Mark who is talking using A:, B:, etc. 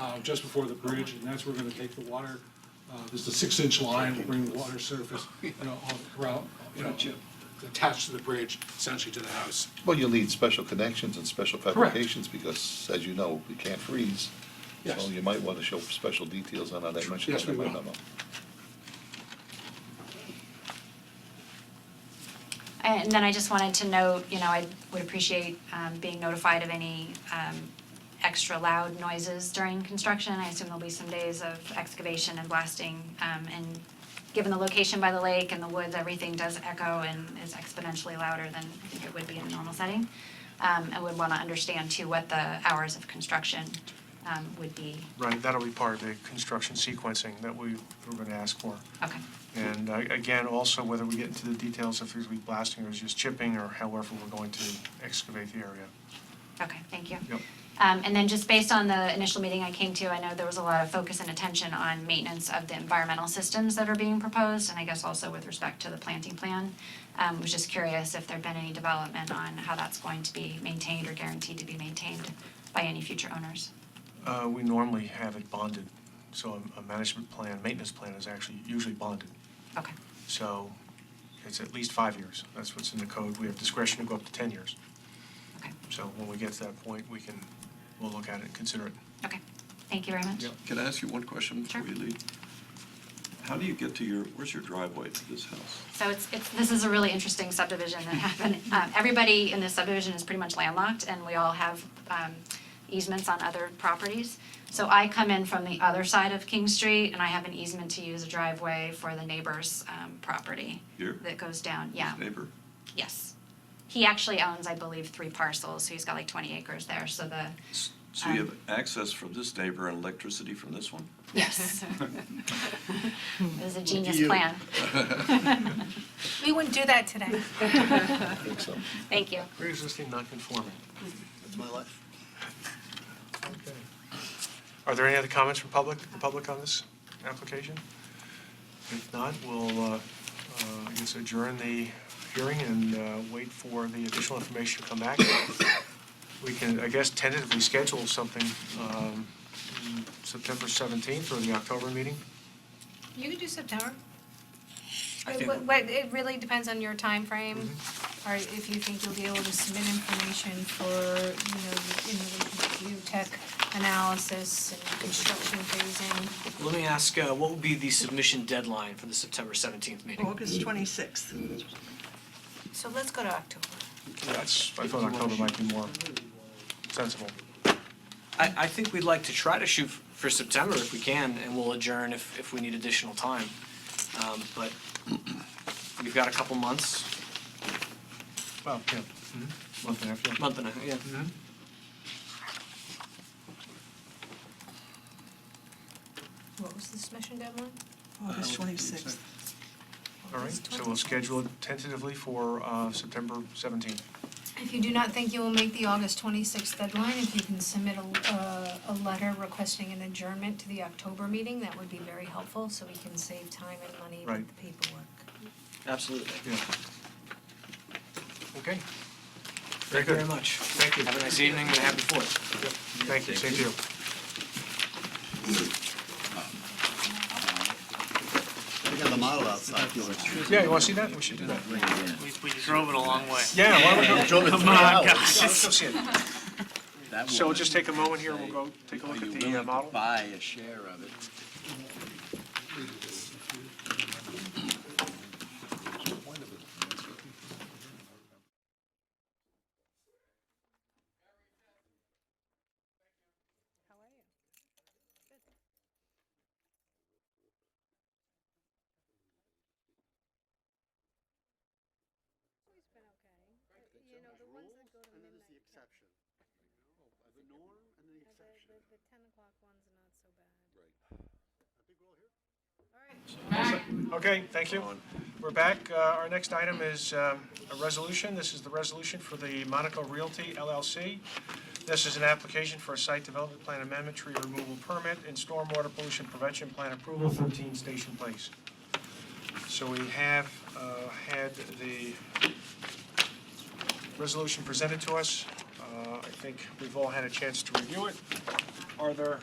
A: uh, just before the bridge, and that's where we're gonna take the water, uh, there's a six-inch line, we'll bring the water surface, you know, all around, you know, attached to the bridge, essentially to the house.
B: Well, you'll need special connections and special
A: Correct.
B: fabrications because, as you know, we can't freeze.
A: Yes.
B: So you might want to show special details on how that dimension.
A: Yes, we will.
C: And then I just wanted to note, you know, I would appreciate um being notified of any um extra loud noises during construction. I assume there'll be some days of excavation and blasting um and given the location by the lake and the woods, everything does echo and is exponentially louder than I think it would be in a normal setting. Um and would wanna understand too what the hours of construction um would be.
D: Right, that'll be part of the construction sequencing that we were going to ask for.
C: Okay,
D: And uh, again, also whether we get into the details if there's gonna be blasting or just chipping or however we're going to excavate the area.
C: okay, thank you.
D: Yep.
C: Um, and then just based on the initial meeting I came to, I know there was a lot of focus and attention on maintenance of the environmental systems that are being proposed, and I guess also with respect to the planting plan. Um, was just curious if there'd been any development on how that's going to be maintained or guaranteed to be maintained by any future owners.
D: Uh, We normally have it bonded, so a- a management plan, maintenance plan is actually usually bonded.
C: Okay,
D: So it's at least five years. That's what's in the code. We have discretion to go up to 10 years.
C: okay,
D: So when we get to that point, we can, we'll look at it and consider it.
C: okay. Thank you very much.
E: Can I ask you one question before
C: Sure.
E: you leave? How do you get to your, where's your driveway to this house?
C: So it's, it's, this is a really interesting subdivision that happened. Um, everybody in this subdivision is pretty much landlocked and we all have, um, easements on other properties. So I come in from the other side of King Street and I have an easement to use a driveway for the neighbor's, um, property.
E: Here?
C: That goes down, yeah,
E: Neighbor?
C: yes. He actually owns, I believe, three parcels, so he's got like twenty acres there, so the,
E: S- So you have
C: Um,
E: access from this neighbor and electricity from this one?
C: yes. It was a genius plan.
F: We wouldn't do that today.
B: I think so.
C: Thank you.
D: We're existing non-conforming.
G: That's my life.
D: Are there any other comments from public, the public on this application? If not, we'll, uh, uh, I guess adjourn the hearing and uh, wait for the additional information to come back. We can, I guess, tentatively schedule something um, September 17th or the October meeting.
F: You could do September.
G: I
F: It
G: think-
F: w- what- it really depends on your time frame,
D: Mm-hmm.
F: or if you think you'll be able to submit information for, you know, the- in the geotech analysis and construction phasing.
G: Let me ask, uh, what will be the submission deadline for the September 17th meeting?
H: August twenty-sixth.
F: So let's go to October.
D: That's, I thought October might be more sensible.
G: I, I think we'd like to try to shoot f- for September if we can, and we'll adjourn if, if we need additional time. Um, But we've got a couple months,
D: Well, yeah, month and a half, yeah.
G: month and a, yeah.
F: What was the submission deadline?
H: August twenty-sixth.
D: All right, so we'll schedule it tentatively for uh, September 17th.
F: If you do not think you will make the August twenty-sixth deadline, if you can submit a, uh, a letter requesting an adjournment to the October meeting, that would be very helpful, so we can save time and money
D: Right.
F: with the paperwork.
G: Absolutely.
D: Yeah. Okay. Very
G: Thank you
D: good.
G: very much.
D: Thank you.
G: Have a nice evening and a happy Fourth.
D: Thank you, same to you.
I: We got the model outside.
D: Yeah, you want to see that? We should do that.
J: We, we drove it a long way. Oh
D: Yeah, why don't we go,
I: Come on, guys.
D: let's go see it. So we'll just take a moment here, we'll go take a look at the uh, model.
I: Buy a share of it.
D: Okay, thank you. We're back. Uh, Our next item is um, a resolution. This is the resolution for the Monaco Realty LLC. This is an application for a site development plan amendment, tree removal permit, and stormwater pollution prevention plan approval, 13 Station Place. So we have uh, had the resolution presented to us. Uh, I think we've all had a chance to review it. Are there